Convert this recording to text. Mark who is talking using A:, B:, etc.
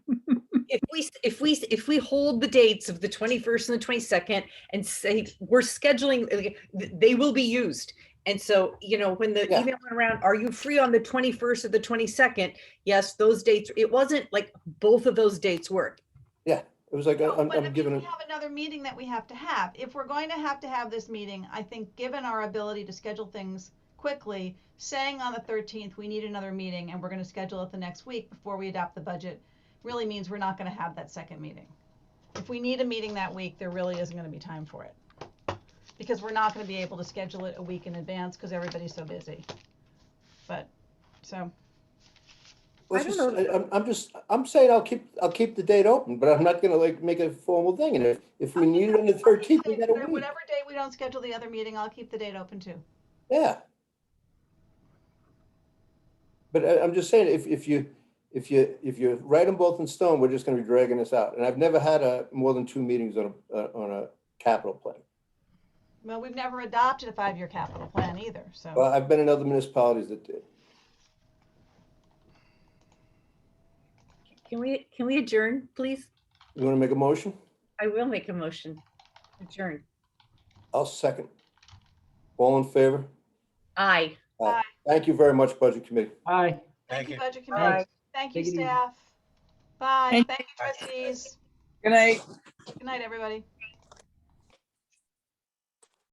A: if we, if we, if we hold the dates of the 21st and the 22nd and say, we're scheduling, like, th- they will be used. And so, you know, when the
B: Yeah.
A: email went around, are you free on the 21st or the 22nd? Yes, those dates, it wasn't like both of those dates work.
B: It was like, I-
C: No,
B: I'm,
C: but I
B: I'm
C: mean,
B: giving it,
C: We have another meeting that we have to have. If we're going to have to have this meeting, I think, given our ability to schedule things quickly, saying on the thirteenth, we need another meeting and we're gonna schedule it the next week before we adopt the budget, really means we're not gonna have that second meeting. If we need a meeting that week, there really isn't gonna be time for it. Because we're not gonna be able to schedule it a week in advance because everybody's so busy. But, so,
B: let's
A: I don't
B: just,
A: know.
B: I- I'm, I'm just, I'm saying I'll keep, I'll keep the date open, but I'm not gonna like make a formal thing, and if, if we need it on the thirteenth, we got a week,
C: whatever day we don't schedule the other meeting, I'll keep the date open too.
B: yeah. But I, I'm just saying, if, if you, if you, if you write them both in stone, we're just gonna be dragging this out, and I've never had a, more than two meetings on a, uh, on a capital plan.
C: Well, we've never adopted a five-year capital plan either, so.
B: Well, I've been in other municipalities that did.
A: Can we, can we adjourn, please?
B: You wanna make a motion?
A: I will make a motion. Adjourn.
B: I'll second. All in favor?
A: Aye.
B: Thank you very much, Budget Committee.
D: Aye.
C: Thank you, Budget
D: Bye.
C: Committee. Thank you,
D: Take it easy.
C: staff. Bye.
E: Thank-
C: Thank you, trustees.
E: Good night.
C: Good night, everybody.